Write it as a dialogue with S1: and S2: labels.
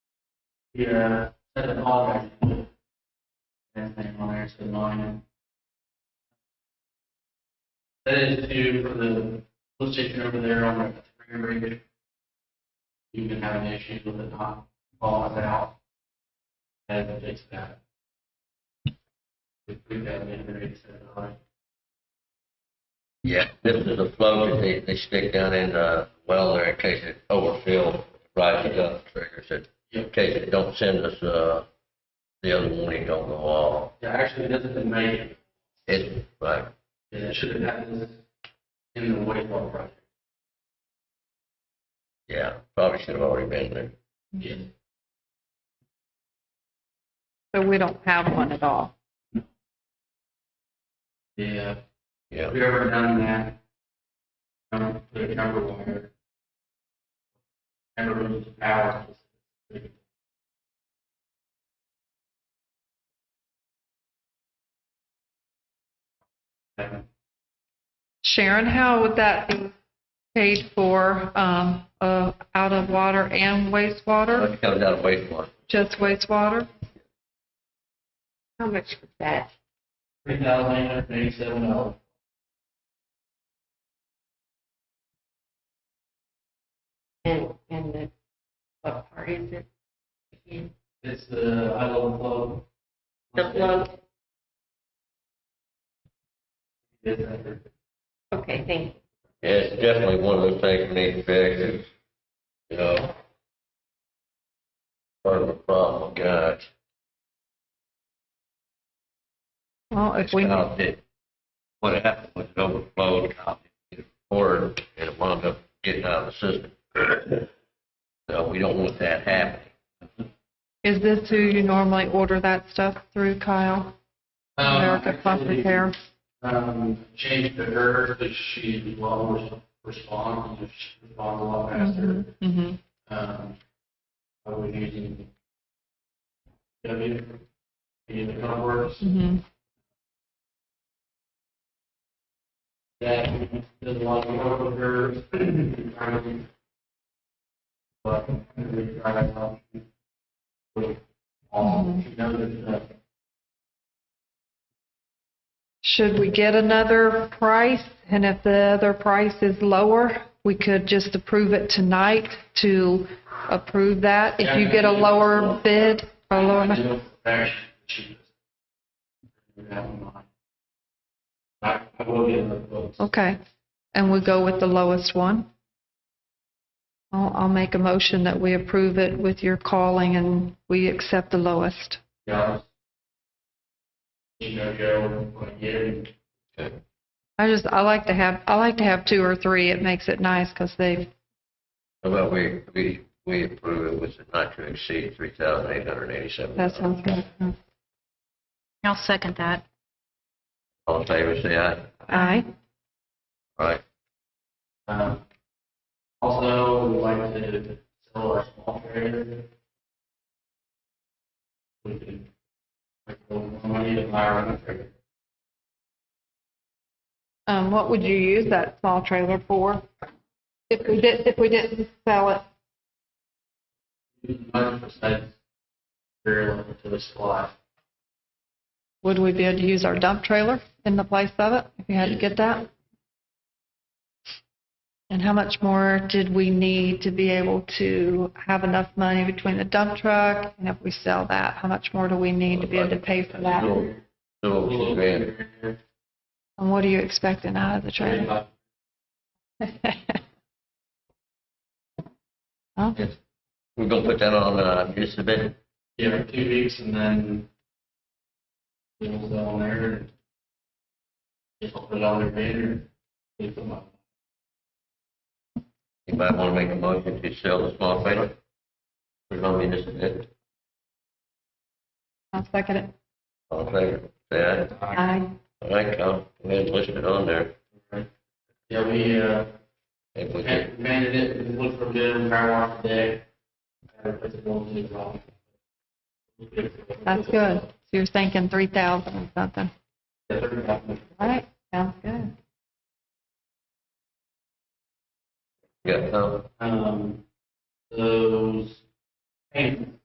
S1: your set of all records. That's name on there, so mine. That is due for the police station over there on the three rig. You've been having issues with it not falling out. I had to fix that. We we got it in rig set it on.
S2: Yeah, this is a flow that they, they stick down in the well there in case it overfilled, rises up, triggers it. In case it don't send us, uh, the other warning don't go off.
S1: Yeah, actually, it doesn't make it.
S2: It, right,
S1: Yeah, it should have happened in the wastewater project.
S2: yeah, probably should have already been there.
S1: Yeah.
S3: So we don't have one at all.
S1: Yeah.
S2: Yeah,
S1: Have you ever done that? Um, put a number wire. Never lose the power. Um,
S3: Sharon, how would that be paid for, um, uh, out of water and wastewater,
S2: it comes out of wastewater.
S3: just wastewater?
S4: How much was that?
S1: Three thousand eight hundred eighty-seven dollars.
S4: And, and the, what part is it? again?
S1: It's the high level flow.
S4: The float?
S1: Yes, I heard.
S4: Okay, thank you.
S2: Yeah, it's definitely one of those things we need to fix, it's, you know, part of the problem, guys.
S3: Well, if we,
S2: Now, that What happened was it overflowed, or it wound up getting out of the system. So we don't want that happening.
S3: is this who you normally order that stuff through, Kyle?
S1: Um,
S3: America Plus
S1: actually,
S3: Repair?
S1: um, changed to her, but she will respond, and she responds a lot faster.
S3: Mm-hmm.
S1: Um, I was using W, in the Converse,
S3: Mm-hmm.
S1: that does a lot of work with her. um, But, we try to help with all, she knows it's, uh,
S3: Should we get another price? And if the other price is lower, we could just approve it tonight to approve that. If you get a lower bid, or lower,
S1: I
S3: amount-
S1: know for a fact she does. That one, I, I will give her quotes.
S3: okay. And we go with the lowest one? I'll, I'll make a motion that we approve it with your calling and we accept the lowest.
S1: Yeah. You know, Joe, when you,
S3: I just, I like to have, I like to have two or three. It makes it nice because they,
S2: How about we, we, we approve it with the not to exceed three thousand eight hundred eighty-seven.
S3: that sounds good.
S5: I'll second that.
S2: All in favor, say aye.
S3: Aye.
S2: All right,
S1: um, also, we like to sell our small trailer. We can, like, the money to buy our own trailer.
S3: Um, what would you use that small trailer for? If we did, if we didn't sell it?
S1: Nine percent, very little to the supply.
S3: Would we be able to use our dump trailer in the place of it, if you had to get that? And how much more did we need to be able to have enough money between the dump truck, and if we sell that, how much more do we need to be able to pay for that?
S2: Little- little two grand.
S3: And what are you expecting out of the trailer? Huh?
S2: We're gonna put that on, uh, just a bit,
S1: Yeah, two weeks and then we'll go on there and just put it on their banner. Leave them up.
S2: you might wanna make a motion to sell the small trailer. We're gonna be just a bit,
S3: I'll second it.
S2: all in favor, say aye.
S3: Aye.
S2: All right, I'll, we'll list it on there.
S1: Yeah, we, uh,
S2: If we can,
S1: expanded it, it looked for good, we ran off today. Had to put the buildings on.
S3: That's good. So you're thinking three thousand or something.
S1: Yeah, thirty thousand.
S3: All right, sounds good.
S2: yeah, Tom?
S1: Um, those paint